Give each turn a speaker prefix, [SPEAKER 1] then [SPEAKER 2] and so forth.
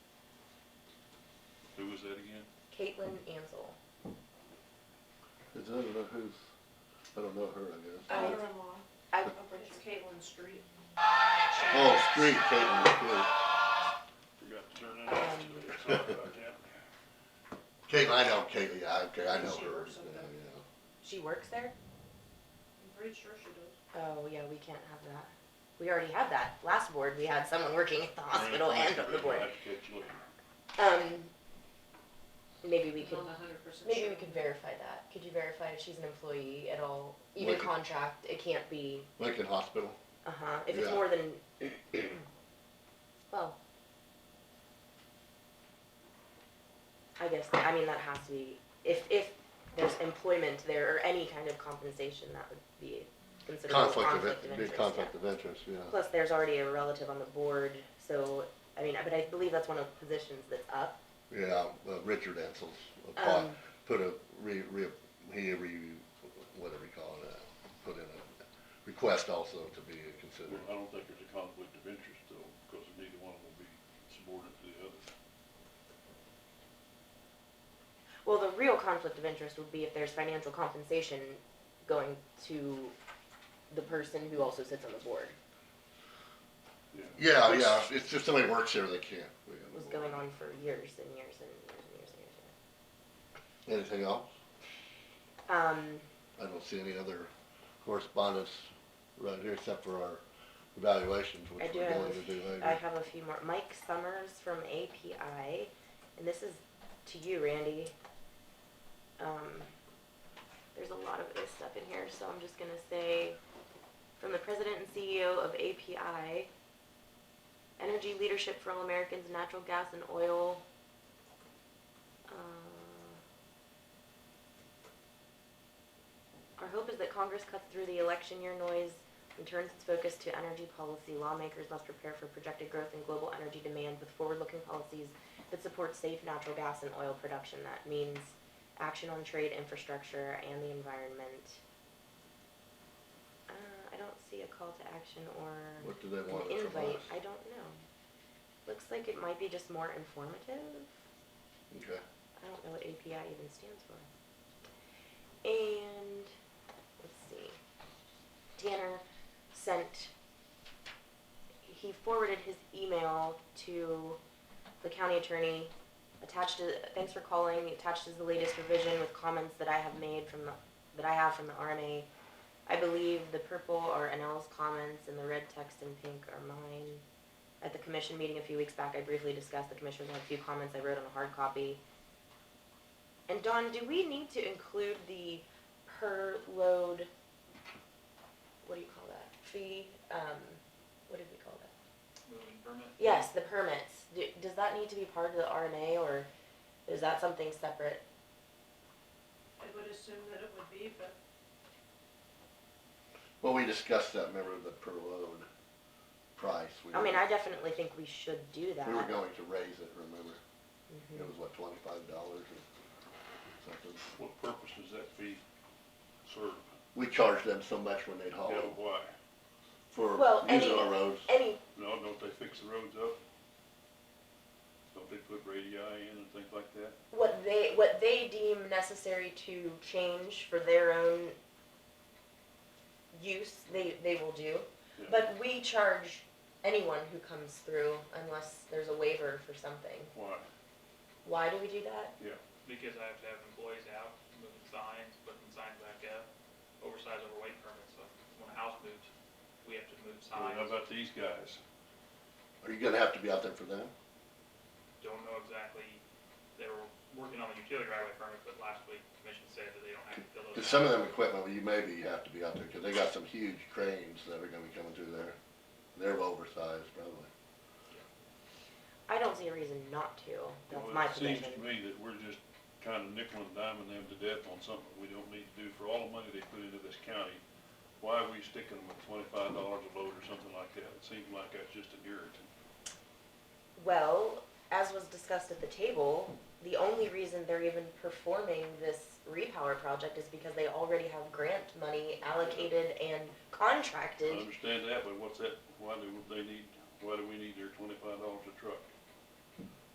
[SPEAKER 1] is that again?
[SPEAKER 2] Caitlin Ansel.
[SPEAKER 3] Cause I don't know who's, I don't know her, I guess.
[SPEAKER 4] Daughter-in-law
[SPEAKER 2] I,
[SPEAKER 4] of Richard Caitlin Street.
[SPEAKER 3] Oh, street Caitlin, okay.
[SPEAKER 1] Forgot to turn that off today, sorry about that.
[SPEAKER 3] Caitlin, I know Caitlin, yeah, okay, I know
[SPEAKER 4] She
[SPEAKER 3] her.
[SPEAKER 4] works
[SPEAKER 3] yeah,
[SPEAKER 4] at the-
[SPEAKER 3] yeah.
[SPEAKER 2] she works there?
[SPEAKER 4] I'm pretty sure she does.
[SPEAKER 2] Oh, yeah, we can't have that. We already had that. Last board, we had someone working at the hospital
[SPEAKER 1] Right,
[SPEAKER 2] and on the
[SPEAKER 1] I'll
[SPEAKER 2] board.
[SPEAKER 1] have to catch you later.
[SPEAKER 2] Um, maybe we
[SPEAKER 4] She's
[SPEAKER 2] could,
[SPEAKER 4] not a hundred percent
[SPEAKER 2] maybe we
[SPEAKER 4] sure.
[SPEAKER 2] could verify that. Could you verify if she's an employee at all? Even
[SPEAKER 3] Like-
[SPEAKER 2] contract, it can't be,
[SPEAKER 3] Lincoln Hospital,
[SPEAKER 2] uh-huh, if it's
[SPEAKER 3] Yeah.
[SPEAKER 2] more than, well. I guess, I mean, that has to be, if, if there's employment there or any kind of compensation, that would be considered a
[SPEAKER 3] conflict of,
[SPEAKER 2] conflict of
[SPEAKER 3] in- big
[SPEAKER 2] interest. yeah.
[SPEAKER 3] conflict of interest, yeah.
[SPEAKER 2] Plus, there's already a relative on the board, so, I mean, but I believe that's one of the positions that's up.
[SPEAKER 3] Yeah, uh, Richard Ansel's, apart-
[SPEAKER 2] Um,
[SPEAKER 3] put a, re, re, he, re, whatever you call it, uh, put in a request also to be considered.
[SPEAKER 1] I don't think there's a conflict of interest though, because neither one will be subordinate to the other.
[SPEAKER 2] well, the real conflict of interest would be if there's financial compensation going to the person who also sits on the board,
[SPEAKER 3] Yeah, yeah, it's just somebody works here, they can't. be on the
[SPEAKER 2] was
[SPEAKER 3] board.
[SPEAKER 2] going on for years and years and years and years and years.
[SPEAKER 3] Anything else?
[SPEAKER 2] Um,
[SPEAKER 3] I don't see any other correspondence right here except for our evaluations,
[SPEAKER 2] I
[SPEAKER 3] which
[SPEAKER 2] do
[SPEAKER 3] we're
[SPEAKER 2] have,
[SPEAKER 3] going to do
[SPEAKER 2] a- I
[SPEAKER 3] later.
[SPEAKER 2] have a few more, Mike Summers from API, and this is to you, Randy. Um, there's a lot of this stuff in here, so I'm just gonna say, from the president and CEO of API, energy leadership for all Americans, natural gas and oil. Uh, Our hope is that Congress cuts through the election year noise and turns its focus to energy policy. Lawmakers must prepare for projected growth in global energy demand with forward-looking policies that support safe natural gas and oil production. That means action on trade, infrastructure, and the environment. Uh, I don't see a call to action or
[SPEAKER 3] What do they want
[SPEAKER 2] an
[SPEAKER 3] from us?
[SPEAKER 2] invite. I don't know. Looks like it might be just more informative.
[SPEAKER 3] Okay,
[SPEAKER 2] I don't know what API even stands for. And let's see. Tanner sent he forwarded his email to the county attorney. Attached to thanks for calling. Attached is the latest revision with comments that I have made from the that I have from the RMA. I believe the purple are Anel's comments and the red text in pink are mine. At the commission meeting a few weeks back, I briefly discussed the commissioners had a few comments I wrote on a hard copy. And Don, do we need to include the per load, what do you call that, fee, um, what did we call that?
[SPEAKER 5] moving permit.
[SPEAKER 2] Yes, the permits, do, does that need to be part of the RMA, or is that something separate?
[SPEAKER 4] I would assume that it would be, but
[SPEAKER 3] well, we discussed that, remember, the per load price. We
[SPEAKER 2] I mean,
[SPEAKER 3] were-
[SPEAKER 2] I definitely think we should do that.
[SPEAKER 3] We were going to raise it, remember?
[SPEAKER 2] Mhm.
[SPEAKER 3] It was what, twenty-five dollars or something?
[SPEAKER 1] What purpose does that fee serve?
[SPEAKER 3] We charged them so much when they'd haul
[SPEAKER 1] Yeah, why?
[SPEAKER 3] for
[SPEAKER 2] Well,
[SPEAKER 3] using
[SPEAKER 2] any-
[SPEAKER 3] our roads.
[SPEAKER 2] Any,
[SPEAKER 1] No, don't they fix the roads up? Don't they put radii in and things like that?
[SPEAKER 2] what they, what they deem necessary to change for their own use, they, they will do.
[SPEAKER 1] Yeah.
[SPEAKER 2] But we charge anyone who comes through unless there's a waiver for something.
[SPEAKER 1] Why?
[SPEAKER 2] Why do we do that?
[SPEAKER 5] Because I have to have employees out, moving signs, putting signs back up, oversized overweight permits, so when a house moves, we have to move
[SPEAKER 1] Well, How
[SPEAKER 5] signs.
[SPEAKER 1] about these guys?
[SPEAKER 3] Are you gonna have to be out there for them?
[SPEAKER 5] Don't know exactly, they were working on the utility right away permit, but last week, commission said that they don't have to fill those out.
[SPEAKER 3] Cause some of them equipment, you maybe have to be out there, cause they got some huge cranes that are gonna be coming through there. They're oversized probably.
[SPEAKER 2] I don't see a reason not to. That's
[SPEAKER 1] Well,
[SPEAKER 2] my
[SPEAKER 1] it seems
[SPEAKER 2] position.
[SPEAKER 1] to me that we're just kind of nickel and diming them to death on something we don't need to do for all the money they put into this county. Why are we sticking them with twenty-five dollars a load or something like that? It seems like that's just an irritant.
[SPEAKER 2] Well, as was discussed at the table, the only reason they're even performing this repower project is because they already have grant money allocated and
[SPEAKER 1] I
[SPEAKER 2] contracted.
[SPEAKER 1] understand that, but what's that, why do they need, why do we need their twenty-five dollars a truck?